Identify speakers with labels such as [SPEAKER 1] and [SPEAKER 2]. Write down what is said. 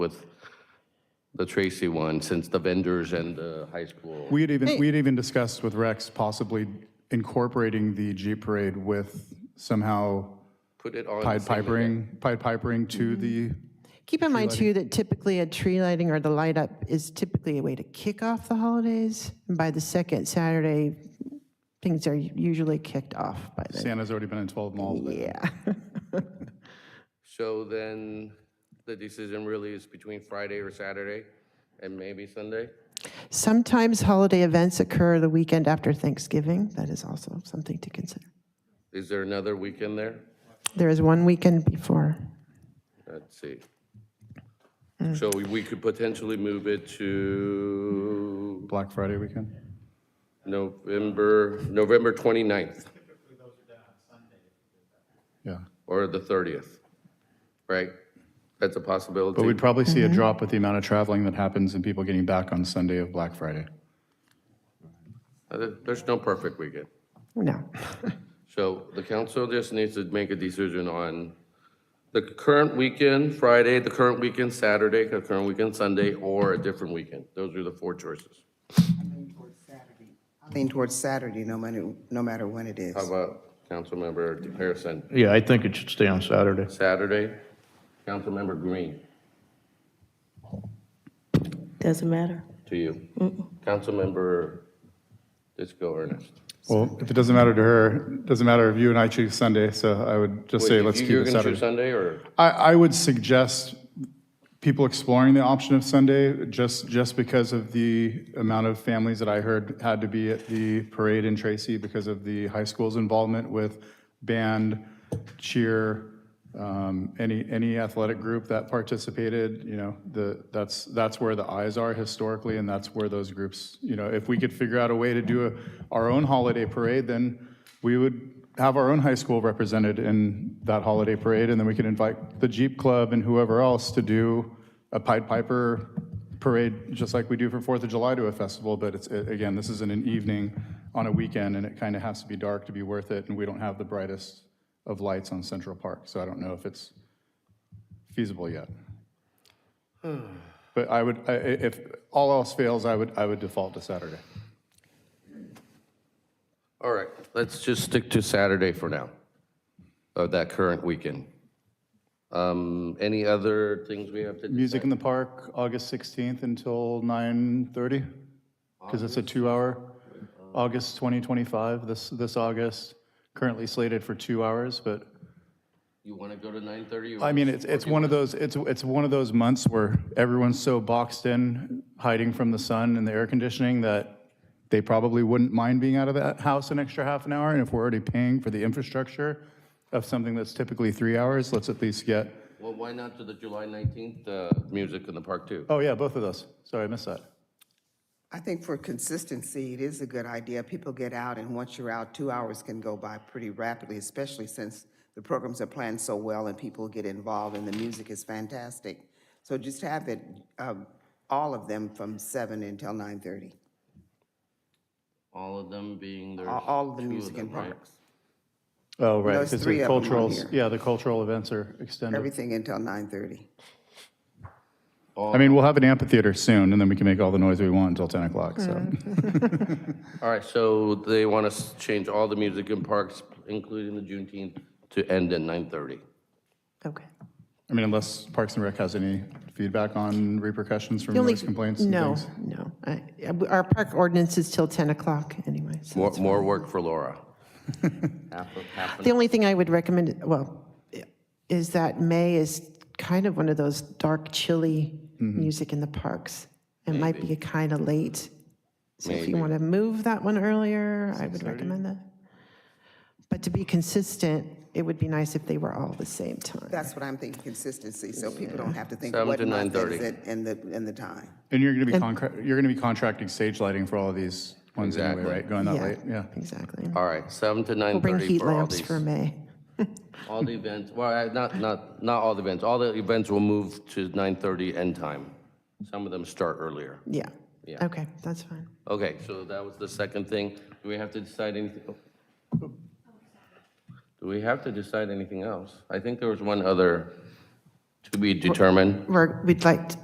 [SPEAKER 1] with the Tracy one, since the vendors and the high school.
[SPEAKER 2] We had even, we had even discussed with Rex possibly incorporating the Jeep Parade with somehow
[SPEAKER 1] Put it on.
[SPEAKER 2] Pied Pipering, Pied Pipering to the,
[SPEAKER 3] Keep in mind too that typically a tree lighting or the light up is typically a way to kick off the holidays. And by the second Saturday, things are usually kicked off by then.
[SPEAKER 2] Santa's already been in 12 malls. but-
[SPEAKER 3] Yeah.
[SPEAKER 1] So then the decision really is between Friday or Saturday and maybe Sunday?
[SPEAKER 3] Sometimes holiday events occur the weekend after Thanksgiving. That is also something to consider.
[SPEAKER 1] Is there another weekend there?
[SPEAKER 3] There is one weekend before.
[SPEAKER 1] Let's see.
[SPEAKER 2] Hmm.
[SPEAKER 1] So we- we could potentially move it to
[SPEAKER 2] Black Friday weekend.
[SPEAKER 1] November, November 29th
[SPEAKER 2] Yeah.
[SPEAKER 1] or the 30th, right? That's a possibility.
[SPEAKER 2] But we'd probably see a drop with the amount of traveling that happens and people getting back on Sunday of Black Friday.
[SPEAKER 1] Uh, there- There's no perfect weekend.
[SPEAKER 3] No.
[SPEAKER 1] So the council just needs to make a decision on the current weekend, Friday, the current weekend, Saturday, the current weekend, Sunday, or a different weekend. Those are the four choices.
[SPEAKER 4] lean towards Saturday, no matter, no matter when it is.
[SPEAKER 1] How about Councilmember Harrison?
[SPEAKER 5] Yeah, I think it should stay on Saturday.
[SPEAKER 1] Saturday, Councilmember Green,
[SPEAKER 6] Doesn't matter.
[SPEAKER 1] to you. Councilmember Disco Ernest.
[SPEAKER 2] Well, if it doesn't matter to her, it doesn't matter if you and I choose Sunday, so I would just say,
[SPEAKER 1] Wait,
[SPEAKER 2] let's
[SPEAKER 1] you-
[SPEAKER 2] keep it
[SPEAKER 1] You're going to choose
[SPEAKER 2] Saturday.
[SPEAKER 1] Sunday, or?
[SPEAKER 2] I, I would suggest people exploring the option of Sunday, just, just because of the amount of families that I heard had to be at the parade in Tracy because of the high school's involvement with band, cheer, um, any, any athletic group that participated, you know, the, that's, that's where the eyes are historically, and that's where those groups, you know, if we could figure out a way to do a, our own holiday parade, then we would have our own high school represented in that holiday parade, and then we could invite the Jeep Club and whoever else to do a Pied Piper parade, just like we do for Fourth of July to a festival, but it's, a- again, this isn't an evening on a weekend, and it kind of has to be dark to be worth it, and we don't have the brightest of lights on Central Park, so I don't know if it's feasible yet. But I would, I- I- if all else fails, I would, I would default to Saturday.
[SPEAKER 1] All right, let's just stick to Saturday for now, of that current weekend. Um, Any other things we have to?
[SPEAKER 2] Music in the Park, August 16th until 9:30? Because it's a two-hour, August 2025, this, this August, currently slated for two hours, but,
[SPEAKER 1] You want to go to 9:30? or-
[SPEAKER 2] I mean, it's, it's one of those, it's, it's one of those months where everyone's so boxed in, hiding from the sun and the air conditioning, that they probably wouldn't mind being out of that house an extra half an hour, and if we're already paying for the infrastructure of something that's typically three hours, let's at least get,
[SPEAKER 1] Well, why not to the July 19th, uh, Music in the Park too?
[SPEAKER 2] oh yeah, both of those, sorry, I missed that.
[SPEAKER 4] I think for consistency, it is a good idea. People get out, and once you're out, two hours can go by pretty rapidly, especially since the programs are planned so well and people get involved and the music is fantastic. So just have it, um, all of them from seven until nine-thirty,
[SPEAKER 1] All of them being
[SPEAKER 3] Uh,
[SPEAKER 1] there's
[SPEAKER 4] all all of the
[SPEAKER 1] two
[SPEAKER 4] music in
[SPEAKER 1] them, right?
[SPEAKER 4] parks.
[SPEAKER 2] Oh, right,
[SPEAKER 4] Those
[SPEAKER 2] because
[SPEAKER 4] three
[SPEAKER 2] the
[SPEAKER 4] of 'em on
[SPEAKER 2] cultural,
[SPEAKER 4] here.
[SPEAKER 2] yeah, the cultural events are extended.
[SPEAKER 4] Everything until nine-thirty.
[SPEAKER 2] I mean, we'll have an amphitheater soon, and then we can make all the noise we want until 10 o'clock, so.
[SPEAKER 1] All right, so they want us to change all the music in parks, including the Juneteenth, to end at 9:30.
[SPEAKER 3] Okay.
[SPEAKER 2] I mean, unless Parks and Rec has any feedback on repercussions from
[SPEAKER 3] The only-
[SPEAKER 2] noise complaints and
[SPEAKER 3] No,
[SPEAKER 2] things.
[SPEAKER 3] no. I- Our park ordinance is till 10 o'clock anyway. so
[SPEAKER 1] More, more work for Laura. Half a- half an-
[SPEAKER 3] The only thing I would recommend, well, is that May is kind of one of those dark, chilly
[SPEAKER 1] Mm-hmm.
[SPEAKER 3] music in the parks. It might be kind of late. So if you want to move that one earlier, I would recommend that. But to be consistent, it would be nice if they were all the same time.
[SPEAKER 4] That's what I'm thinking, consistency, so people don't have to think
[SPEAKER 1] Seven
[SPEAKER 4] what
[SPEAKER 1] to
[SPEAKER 4] month is
[SPEAKER 1] 9:30.
[SPEAKER 4] it and the, and the time.
[SPEAKER 2] And you're going to be contract, you're going to be contracting stage lighting for all of these ones anyway,
[SPEAKER 1] Exactly.
[SPEAKER 2] right? Going that late, yeah.
[SPEAKER 3] Exactly.
[SPEAKER 1] All right, 7 to
[SPEAKER 3] We'll bring
[SPEAKER 1] 9:30
[SPEAKER 3] heat
[SPEAKER 1] for all
[SPEAKER 3] lamps
[SPEAKER 1] these,
[SPEAKER 3] for May.
[SPEAKER 1] all the events, well, I- not, not, not all the events, all the events will move to 9:30 end time. Some of them start earlier.
[SPEAKER 3] Yeah.
[SPEAKER 1] Yeah.
[SPEAKER 3] Okay, that's fine.
[SPEAKER 1] Okay, so that was the second thing. Do we have to decide anything? Oh. Do we have to decide anything else? I think there was one other to be determined.
[SPEAKER 3] We're, we'd like,